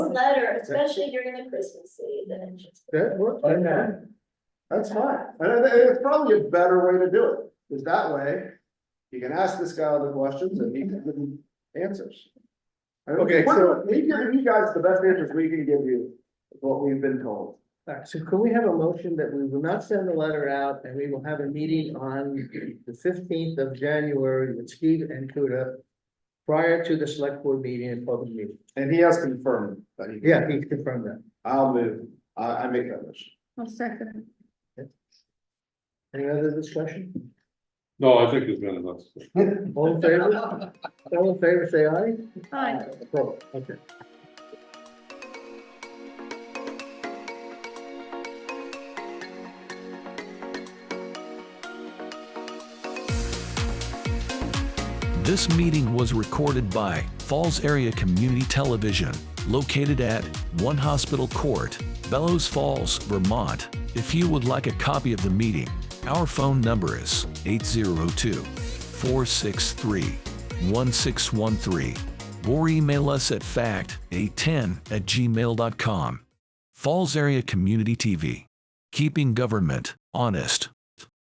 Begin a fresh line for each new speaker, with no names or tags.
letter, especially during the Christmas season.
That works.
Why not?
That's fine. And I think it's probably a better way to do it, is that way you can ask this guy all the questions and he can give you answers. I don't-
Okay, so-
We're giving you guys the best answers we can give you, is what we've been told.
All right, so can we have a motion that we will not send the letter out and we will have a meeting on the fifteenth of January with Steve and Kuda prior to the select board meeting and public meeting?
And he has confirmed that he.
Yeah, he's confirmed that.
I'll move, I, I make that motion.
I'll second.
Any other discussion?
No, I think there's been enough.
All in favor? All in favor, say aye.
Aye.
Opposed? Okay.
This meeting was recorded by Falls Area Community Television, located at One Hospital Court, Bellows Falls, Vermont. If you would like a copy of the meeting, our phone number is 802 463 1613 or email us at fact810 at gmail.com. Falls Area Community TV, keeping government honest.